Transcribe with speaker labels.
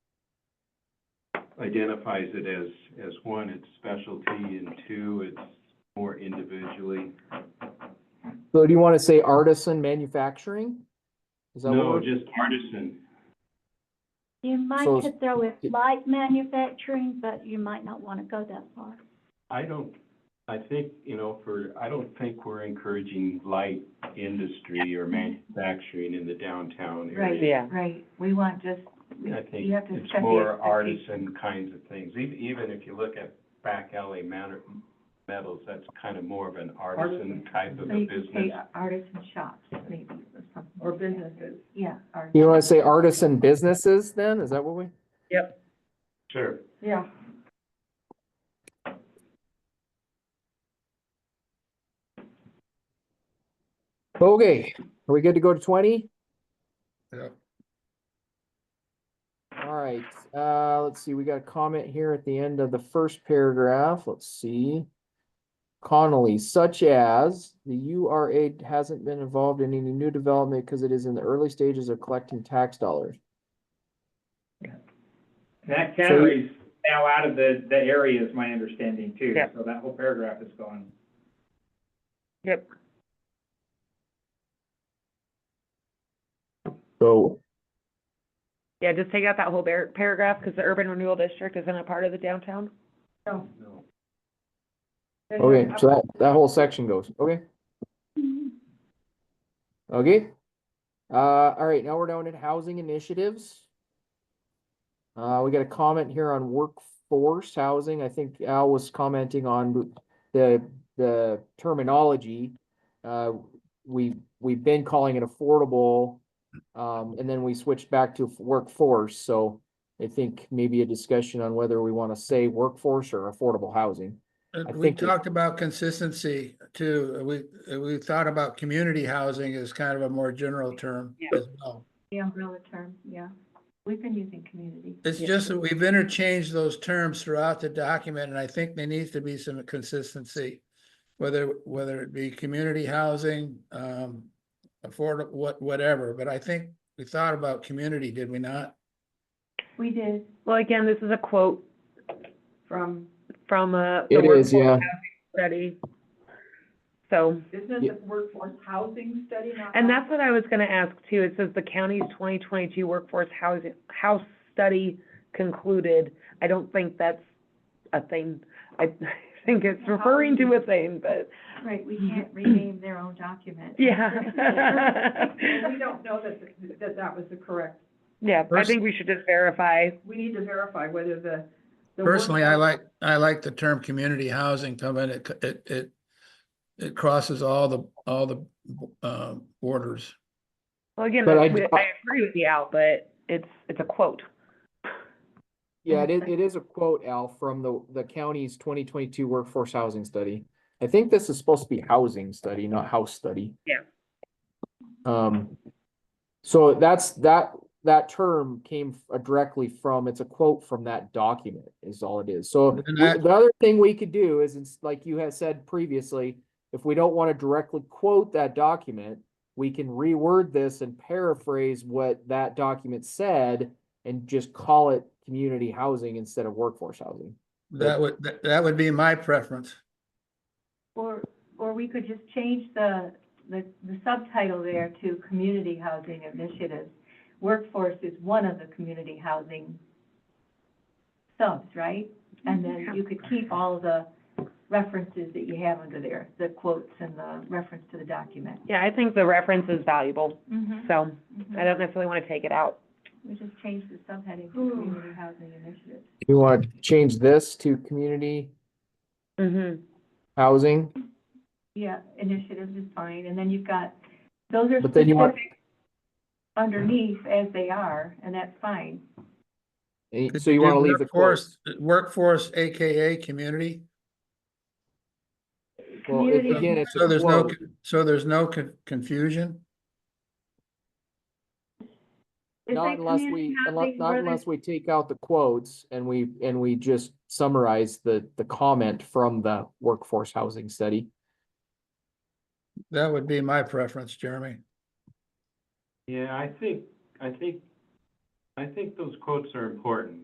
Speaker 1: identifies it as, as one, it's specialty, and two, it's more individually.
Speaker 2: So do you want to say artisan manufacturing? Is that what
Speaker 1: No,
Speaker 2: we're-
Speaker 1: just artisan.
Speaker 3: You might
Speaker 2: So-
Speaker 3: could throw in light manufacturing, but you might not want to go that far.
Speaker 1: I don't, I think, you know, for, I don't think we're encouraging light industry or manufacturing in the downtown area.
Speaker 4: Yeah.
Speaker 5: Right, we want just,
Speaker 1: I think
Speaker 5: You have to
Speaker 1: it's
Speaker 5: set the
Speaker 1: more
Speaker 5: expectation.
Speaker 1: artisan kinds of things. Even, even if you look at back alley matter, metals, that's kind of more of an artisan
Speaker 5: Artisan.
Speaker 1: type of
Speaker 5: so
Speaker 1: a
Speaker 5: you could say
Speaker 1: business.
Speaker 5: artisan shops, maybe, or something.
Speaker 4: Or
Speaker 5: like that.
Speaker 4: businesses.
Speaker 5: Yeah. artisan.
Speaker 2: You want to say artisan businesses then? Is that what we?
Speaker 1: Sure.
Speaker 4: Yeah.
Speaker 2: Okay, are we good to go to twenty?
Speaker 6: Yeah.
Speaker 2: All right, uh, let's see, we got a comment here at the end of the first paragraph. Let's see. Connolly, such as the U R A hasn't been involved in any new development because it is in the early stages of collecting tax dollars.
Speaker 7: That
Speaker 2: So-
Speaker 7: category's now out of the, the area is my understanding too,
Speaker 4: Yeah.
Speaker 7: so that whole paragraph is gone.
Speaker 2: So
Speaker 4: Yeah, just take out that whole par- paragraph, because the urban renewal district isn't a part of the downtown.
Speaker 5: So,
Speaker 1: No.
Speaker 2: Okay, so that, that whole section goes, okay,
Speaker 3: Mm-hmm.
Speaker 2: okay. Uh, all right, now we're down at housing initiatives. Uh, we got a comment here on workforce housing. I think Al was commenting on the, the terminology. Uh, we, we've been calling it affordable, um, and then we switched back to workforce, so I think maybe a discussion on whether we want to say workforce or affordable housing.
Speaker 6: Uh,
Speaker 2: I
Speaker 6: We
Speaker 2: think it-
Speaker 6: talked about consistency too. Uh, We, uh, we thought about community housing as kind of a more general term
Speaker 4: Yeah.
Speaker 6: as well.
Speaker 5: the umbrella term, yeah, we've been using community.
Speaker 6: It's
Speaker 4: Yeah.
Speaker 6: just that we've interchanged those terms throughout the document and I think there needs to be some consistency. Whether, whether it be community housing, um, affordable, what, whatever, but I think we thought about community, did we not?
Speaker 5: We did
Speaker 4: Well, again, this is a quote
Speaker 5: from
Speaker 4: from, uh, the
Speaker 2: It is,
Speaker 4: workforce
Speaker 2: yeah.
Speaker 4: housing study. So,
Speaker 8: Isn't
Speaker 2: Yeah.
Speaker 8: it the workforce housing study? not
Speaker 4: and
Speaker 8: housing?
Speaker 4: that's what I was gonna ask too, it says the county's twenty twenty-two workforce housing, house study concluded. I don't think that's a thing, I think it's referring to a thing, but,
Speaker 5: Right, we can't rename their own document.
Speaker 4: yeah.
Speaker 8: We don't know that, th- that that was the correct,
Speaker 4: Yeah, I
Speaker 6: Pers-
Speaker 4: think we should just verify
Speaker 8: we need to verify whether the. the work-
Speaker 6: Personally, I like, I like the term community housing coming, it, c- it, it, it crosses all the, all the, uh, borders.
Speaker 4: Well, again,
Speaker 2: But
Speaker 4: I,
Speaker 2: I-
Speaker 4: I agree with you, Al, but it's, it's a quote.
Speaker 2: Yeah, it is, it is a quote, Al, from the, the county's twenty twenty-two workforce housing study. I think this is supposed to be housing study, not house study.
Speaker 4: Yeah.
Speaker 2: Um, so that's, that, that term came f- uh, directly from, it's a quote from that document is all it is. So
Speaker 6: And
Speaker 2: we-
Speaker 6: I-
Speaker 2: the other thing we could do is, it's like you had said previously, if we don't want to directly quote that document, we can reword this and paraphrase what that document said and just call it community housing instead of workforce housing.
Speaker 6: That would, that- that would be my preference.
Speaker 5: Or, or we could just change the, the the subtitle there to community housing initiatives. Workforce is one of the community housing subs, right? And then you could keep all the references that you have under there, the quotes and the reference to the document.
Speaker 4: Yeah, I think the reference is valuable,
Speaker 5: Mm-hmm.
Speaker 4: so I don't necessarily want to take it out.
Speaker 5: We just changed the subheading to
Speaker 8: Ooh.
Speaker 5: community housing initiatives.
Speaker 2: You want to change this to community
Speaker 4: Mm-hmm.
Speaker 2: housing,
Speaker 5: Yeah, initiatives is fine, and then you've got, those are
Speaker 2: but then you want,
Speaker 5: specific underneath as they are, and that's fine.
Speaker 2: eh, so you want to leave the course.
Speaker 6: Workforce- Workforce, AKA community,
Speaker 2: Well, it-
Speaker 5: Community-
Speaker 2: again, it's
Speaker 6: so
Speaker 2: a
Speaker 6: there's no,
Speaker 2: quote.
Speaker 6: con- so there's no con- confusion.
Speaker 5: Is
Speaker 2: Not
Speaker 5: that
Speaker 2: unless
Speaker 5: community
Speaker 2: we, unless,
Speaker 5: housing
Speaker 2: not
Speaker 5: where
Speaker 2: unless we take out the quotes and we, and we just summarize the, the comment from the workforce housing study.
Speaker 6: That would be my preference, Jeremy.
Speaker 1: Yeah, I think, I think, I think those quotes are important.